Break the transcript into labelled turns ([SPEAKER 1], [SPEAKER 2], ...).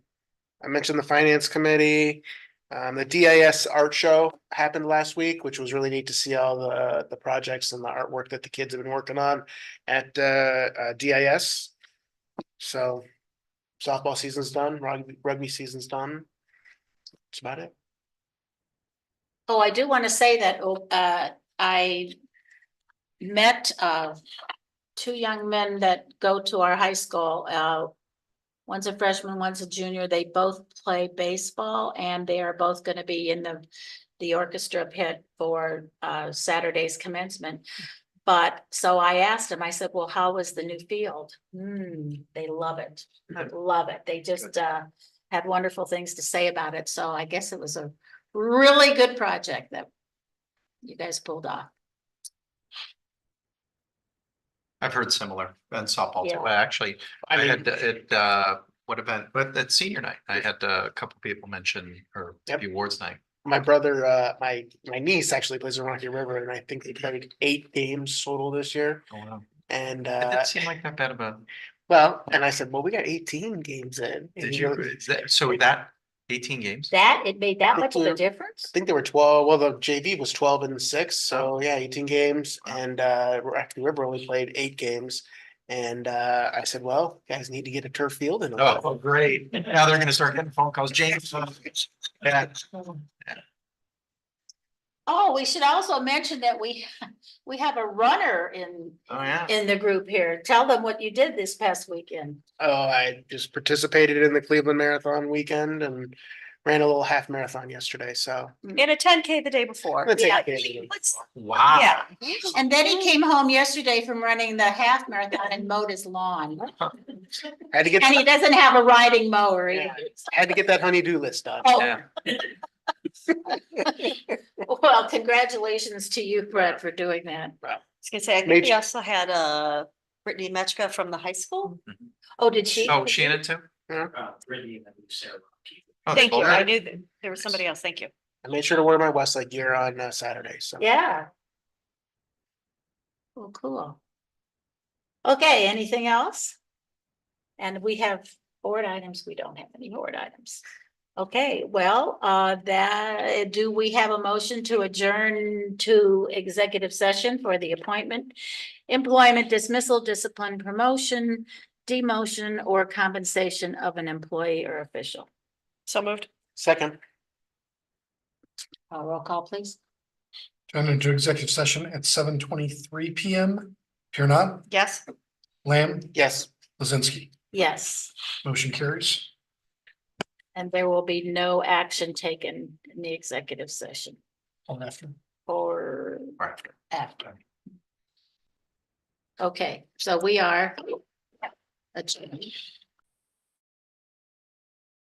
[SPEAKER 1] I mentioned the finance committee. Um, the DIS art show happened last week, which was really neat to see all the, the projects and the artwork that the kids have been working on at, uh, uh, DIS. So softball season's done, rugby, rugby season's done. That's about it.
[SPEAKER 2] Oh, I do want to say that oh, uh, I met uh, two young men that go to our high school. uh, One's a freshman, one's a junior. They both play baseball and they are both going to be in the, the orchestra pit for uh, Saturday's commencement. But, so I asked them, I said, well, how was the new field? Hmm, they love it,
[SPEAKER 1] Good.
[SPEAKER 2] love it. They just uh, had wonderful things to say about it. So I guess it was a really good project that you guys pulled off.
[SPEAKER 3] I've heard similar and softball.
[SPEAKER 2] Yeah.
[SPEAKER 3] too. I Actually, I
[SPEAKER 1] I mean,
[SPEAKER 3] had uh, it, uh, what event, but at senior night, I had uh, a couple people mention or
[SPEAKER 1] Yep.
[SPEAKER 3] the awards night.
[SPEAKER 1] my brother, uh, my, my niece actually plays in Rocky River and I think they played eight games total this year.
[SPEAKER 3] going on.
[SPEAKER 1] And,
[SPEAKER 3] It
[SPEAKER 1] uh,
[SPEAKER 3] didn't seem like that bad of a,
[SPEAKER 1] well, and I said, well, we got eighteen games in. And
[SPEAKER 3] did
[SPEAKER 1] he
[SPEAKER 3] you,
[SPEAKER 1] goes-
[SPEAKER 3] is that- so that eighteen games?
[SPEAKER 2] That, it made that much of a
[SPEAKER 1] Clear.
[SPEAKER 2] difference?
[SPEAKER 1] I think there were twelve, well, the JV was twelve and six, so yeah, eighteen games
[SPEAKER 3] Oh. Wow.
[SPEAKER 1] and uh Rocky River only played eight games. And uh I said, well, you guys need to get a turf field and
[SPEAKER 3] Oh, well, great. Now they're gonna start getting phone calls, James. uh, yeah.
[SPEAKER 2] Oh, we should also mention that we, we have a runner in,
[SPEAKER 3] Oh, yeah.
[SPEAKER 2] in the group here. Tell them what you did this past weekend.
[SPEAKER 1] oh, I just participated in the Cleveland Marathon weekend and ran a little half marathon yesterday, so.
[SPEAKER 4] In a ten K the day before.
[SPEAKER 1] Let's take
[SPEAKER 2] Yeah.
[SPEAKER 1] a picture.
[SPEAKER 4] Let's,
[SPEAKER 3] Wow.
[SPEAKER 4] yeah,
[SPEAKER 2] And then he came home yesterday from running the half marathon and mowed his lawn.
[SPEAKER 1] Had to get,
[SPEAKER 2] And he doesn't have a riding mower either.
[SPEAKER 1] had to get that honey-do list done.
[SPEAKER 2] Oh,
[SPEAKER 3] Yeah.
[SPEAKER 2] well, congratulations to you, Brett, for doing that.
[SPEAKER 4] I was gonna say, I think we
[SPEAKER 1] Major-
[SPEAKER 4] also had uh Brittany Metzger from the high school.
[SPEAKER 2] Oh, did she?
[SPEAKER 3] Oh, Shannon too?
[SPEAKER 5] uh, Brittany and then Sarah.
[SPEAKER 3] Oh,
[SPEAKER 4] Thank you.
[SPEAKER 3] both
[SPEAKER 4] I
[SPEAKER 3] of
[SPEAKER 4] knew that there was somebody else. Thank you.
[SPEAKER 1] I made sure to wear my Westlake gear on uh, Saturday, so.
[SPEAKER 2] Yeah. Well, Oh, cool. Okay, anything else? And we have board items. We don't have any board items. Okay, well, uh, that, do we have a motion to adjourn to executive session for the appointment? Employment dismissal, discipline, promotion, demotion, or compensation of an employee or official?
[SPEAKER 4] So moved.
[SPEAKER 1] Second,
[SPEAKER 2] Uh, roll call, please.
[SPEAKER 6] Turn into executive session at seven twenty-three PM. Here not,
[SPEAKER 4] Yes.
[SPEAKER 6] Lamb,
[SPEAKER 1] yes.
[SPEAKER 6] Lizinski,
[SPEAKER 2] Yes.
[SPEAKER 6] motion carries.
[SPEAKER 2] And there will be no action taken in the executive session
[SPEAKER 6] All after.
[SPEAKER 2] or
[SPEAKER 3] them are after.
[SPEAKER 2] after. Okay, so we are. adjourned.